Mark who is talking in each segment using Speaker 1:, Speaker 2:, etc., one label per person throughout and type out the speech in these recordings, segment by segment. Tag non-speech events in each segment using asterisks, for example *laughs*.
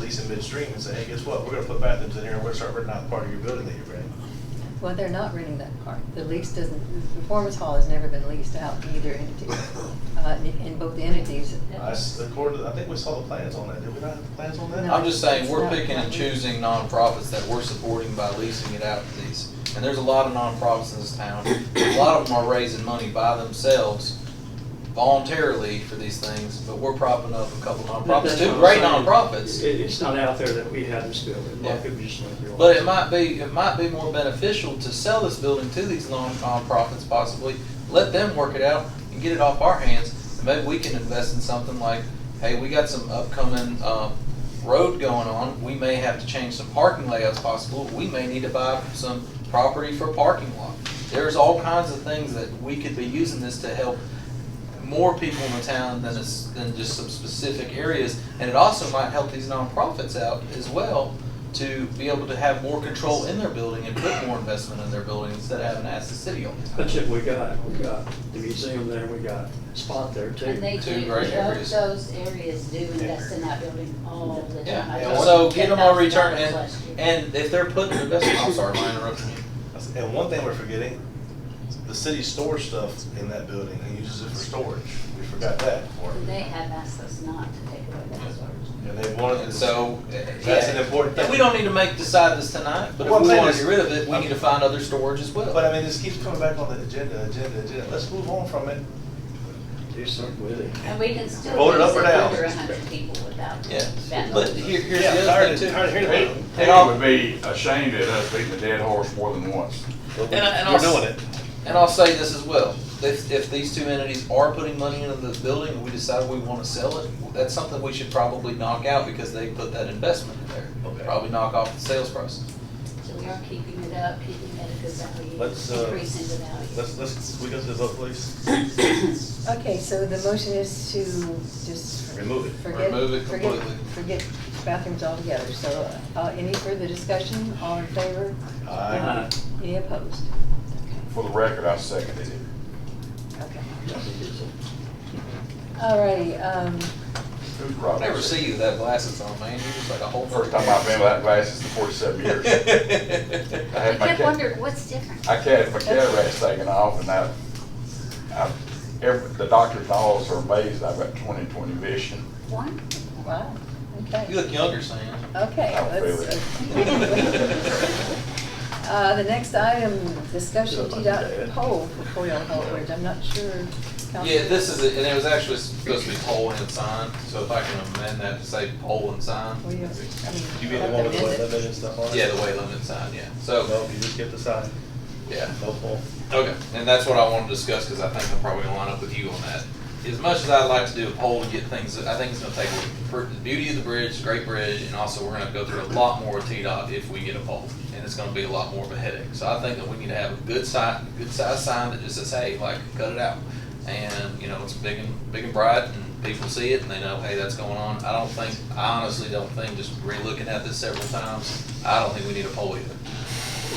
Speaker 1: these in midstream and say, hey, guess what, we're gonna put bathrooms in here, and we're gonna start renting out part of your building that you rent.
Speaker 2: Well, they're not renting that part. The lease doesn't, the performance hall has never been leased out to either entity. Uh, in- In both entities.
Speaker 1: I, s- uh, according to, I think we saw the plans on that, did we not have the plans on that?
Speaker 2: No.
Speaker 3: I'm just saying, we're
Speaker 2: It's not
Speaker 3: picking and
Speaker 2: public.
Speaker 3: choosing nonprofits that we're supporting by leasing it out to these. And there's a lot of nonprofits in this town. A lot of them are raising money by themselves voluntarily for these things, but we're propping up a couple nonprofits,
Speaker 4: That's
Speaker 3: too,
Speaker 4: what
Speaker 3: great
Speaker 4: I'm saying.
Speaker 3: nonprofits.
Speaker 4: It, it's not out there that we have this building, like it was just like yours.
Speaker 3: But it might be, it might be more beneficial to sell this building to these non- nonprofits possibly, let them work it out and get it off our hands. And maybe we can invest in something like, hey, we got some upcoming, uh, road going on, we may have to change some parking layouts possible, we may need to buy some property for a parking lot. There's all kinds of things that we could be using this to help more people in the town than it's, than just some specific areas. And it also might help these nonprofits out as well to be able to have more control in their building and put more investment in their building instead of having to ask the city all the time.
Speaker 4: That's it, we got, we got the museum there, we got a spot there too.
Speaker 5: And they
Speaker 3: Two
Speaker 5: do,
Speaker 3: great
Speaker 5: both
Speaker 3: areas.
Speaker 5: those areas do invest in that building all the time.
Speaker 3: Yeah,
Speaker 5: I
Speaker 3: and
Speaker 5: just-
Speaker 3: so get them a return
Speaker 5: $10,000
Speaker 3: and,
Speaker 5: last year.
Speaker 3: and if they're putting their best, I'm sorry, I interrupted you.
Speaker 1: And one thing we're forgetting, the city stores stuff in that building and uses it for storage. We forgot that part.
Speaker 5: And They have asked us not to take away that storage.
Speaker 1: And they wanted
Speaker 3: And
Speaker 1: to.
Speaker 3: so. uh,
Speaker 1: That's
Speaker 3: yeah.
Speaker 1: an important thing.
Speaker 3: And we don't need to make, decide this tonight, but
Speaker 1: Well,
Speaker 3: if
Speaker 1: I'm
Speaker 3: we
Speaker 1: saying
Speaker 3: wanna
Speaker 1: is-
Speaker 3: get rid of it, we
Speaker 1: I'm-
Speaker 3: need to find other storage as well.
Speaker 1: But I mean, this keeps coming back on the agenda, agenda, agenda. Let's move on from it.
Speaker 4: Do something with it.
Speaker 5: And we can still.
Speaker 1: Vote it up
Speaker 5: use
Speaker 1: or
Speaker 5: it
Speaker 1: down.
Speaker 5: Under a hundred people without.
Speaker 3: Yeah,
Speaker 5: that
Speaker 3: but
Speaker 5: number.
Speaker 3: here, here's
Speaker 1: Yeah,
Speaker 3: the
Speaker 1: tired
Speaker 3: other
Speaker 1: of-
Speaker 3: thing too.
Speaker 1: tired of hearing about it.
Speaker 3: And
Speaker 6: They
Speaker 3: I'll-
Speaker 6: would be ashamed at us beating a dead horse more than once.
Speaker 3: And I- and I'll s- And I'll say this as well, if, if these two entities are putting money into the building and we decide we wanna sell it, that's something we should probably knock out because they put that investment in
Speaker 1: Okay.
Speaker 3: there. Probably knock off the sales price.
Speaker 5: So we are keeping it up, keeping it at a good value,
Speaker 1: Let's, uh,
Speaker 5: increasing the value.
Speaker 1: Let's, let's, we go to the vote, please.
Speaker 2: Okay, so the motion is to just.
Speaker 1: Remove it.
Speaker 2: Forget.
Speaker 3: Remove it
Speaker 2: forget-
Speaker 3: completely.
Speaker 2: Forget bathrooms altogether. So uh, any further discussion? All in favor? Uh,
Speaker 1: Aye.
Speaker 2: Any opposed?
Speaker 6: For the record, I seconded it.
Speaker 2: Okay. Okay.
Speaker 4: That's
Speaker 2: All righty, um,
Speaker 6: Who's
Speaker 3: I
Speaker 6: Robert?
Speaker 3: never see you without glasses on, man, you're just like a whole.
Speaker 6: First time I've been without glasses in
Speaker 3: *laughs*
Speaker 6: forty-seven years. I
Speaker 5: I
Speaker 6: had my,
Speaker 5: kept
Speaker 6: ca-
Speaker 5: wondering, what's different?
Speaker 6: I had my cataracts taken off and I, I, every, the doctors and all of us are amazed I've got twenty-twenty vision.
Speaker 5: One?
Speaker 2: wow, okay.
Speaker 3: You look younger, Sam.
Speaker 2: Okay,
Speaker 6: I don't
Speaker 2: let's. *laughs* Uh, the next item, discussion T dot poll for Coyle Holdridge. I'm not sure. Council-
Speaker 3: Yeah, this is, it, and it was actually supposed to be poll and sign, so if I can amend that to say poll and sign.
Speaker 2: Well, you- I mean,
Speaker 1: You be the one with the
Speaker 2: amend
Speaker 1: weight
Speaker 2: it.
Speaker 1: limit and stuff on it?
Speaker 3: Yeah, the way limit sign, yeah, so,
Speaker 1: No, you just get the sign.
Speaker 3: yeah.
Speaker 1: No poll.
Speaker 3: Okay, and that's what I want to discuss, because I think I'm probably gonna line up with you on that. As much as I'd like to do a poll and get things, I think it's gonna take away the beauty of the bridge, great bridge, and also we're gonna go through a lot more with T-Dot if we get a poll. And it's gonna be a lot more of a headache. So I think that we need to have a good sign, good size sign that just says, hey, like, cut it out. And, you know, it's big and, big and bright, and people see it, and they know, hey, that's going on. I don't think, I honestly don't think, just relooking at this several times, I don't think we need a poll either.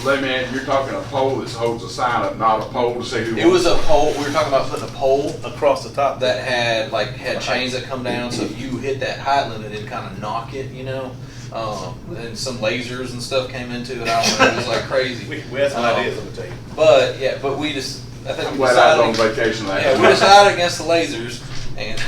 Speaker 6: Let me add, you're talking a pole that holds a sign up, not a pole to say who.
Speaker 3: It was a poll, we were talking about putting a poll
Speaker 1: Across the top.
Speaker 3: that had like had chains that come down, so if you hit that height limit, it'd kind of knock it, you know. Um, and some lasers and stuff came into it. I don't know, it was like crazy.
Speaker 1: We, we had some
Speaker 3: Um,
Speaker 1: ideas, let me tell you.
Speaker 3: But yeah, but we just I think
Speaker 6: I'm
Speaker 3: we
Speaker 6: glad I
Speaker 3: decided.
Speaker 6: was on vacation last
Speaker 3: yeah, we
Speaker 6: week.
Speaker 3: decided against the lasers, and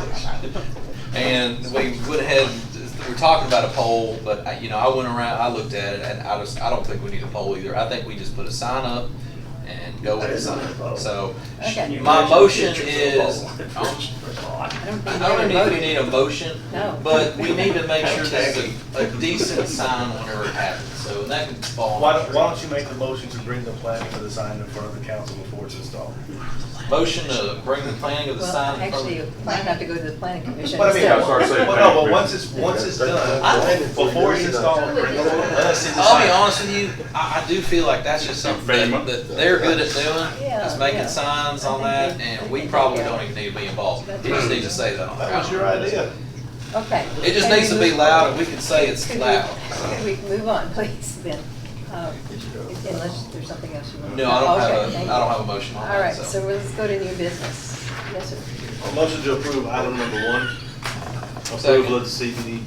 Speaker 2: *laughs*
Speaker 3: and we went ahead. and- We're talking about a poll, but I, you know, I went around, I looked at it, and I just I don't think we need a poll either. I think we just put a sign up and go with
Speaker 4: That
Speaker 3: the
Speaker 4: is not a
Speaker 3: sign.
Speaker 4: poll.
Speaker 3: So
Speaker 2: Okay.
Speaker 3: my motion
Speaker 4: *laughs*
Speaker 3: is.
Speaker 2: I don't
Speaker 3: I
Speaker 2: think
Speaker 3: don't
Speaker 2: we voted.
Speaker 3: even think we need a motion,
Speaker 2: No.
Speaker 3: but we need to make sure this is a, a decent sign whenever it happens, so that can fall.
Speaker 1: Why don't, why don't you make the motion to bring the plan for the sign in front of the council before it's installed?
Speaker 3: Motion to bring the planning of the
Speaker 2: Well,
Speaker 3: sign in front
Speaker 2: actually,
Speaker 3: of.
Speaker 2: it might have to go to the planning commission.
Speaker 1: But I mean,
Speaker 2: instead.
Speaker 6: I'm sorry, say
Speaker 1: Well, no,
Speaker 6: plan.
Speaker 1: but once it's, once it's done,
Speaker 3: I-
Speaker 1: before it's installed, bring the, let us see
Speaker 2: uh,
Speaker 1: the
Speaker 3: I'll be
Speaker 1: sign.
Speaker 3: honest with you, I, I do feel like that's just something that, that they're good at doing,
Speaker 2: Yeah,
Speaker 3: is making
Speaker 2: yeah.
Speaker 3: signs on
Speaker 2: I think
Speaker 3: that,
Speaker 2: they- I
Speaker 3: and
Speaker 2: think
Speaker 3: we
Speaker 2: they
Speaker 3: probably
Speaker 2: do.
Speaker 3: don't even need to be involved. It just needs to say that on the
Speaker 1: That was
Speaker 3: ground.
Speaker 1: your idea.
Speaker 2: Okay.
Speaker 3: It just
Speaker 2: Can
Speaker 3: needs to
Speaker 2: we
Speaker 3: be
Speaker 2: move-
Speaker 3: loud, and we can say it's
Speaker 2: could *laughs* we-
Speaker 3: loud.
Speaker 2: Could we move on, please, then? Um, Unless there's something else you want. Oh,
Speaker 3: No, I don't
Speaker 2: Okay,
Speaker 3: have a,
Speaker 2: thank
Speaker 3: I don't
Speaker 2: you.
Speaker 3: have a motion on
Speaker 2: All
Speaker 3: that,
Speaker 2: right,
Speaker 3: so.
Speaker 2: so let's go to new business. Yes, sir.
Speaker 1: Motion to approve item number one.
Speaker 3: Second.
Speaker 1: Approval of the CBD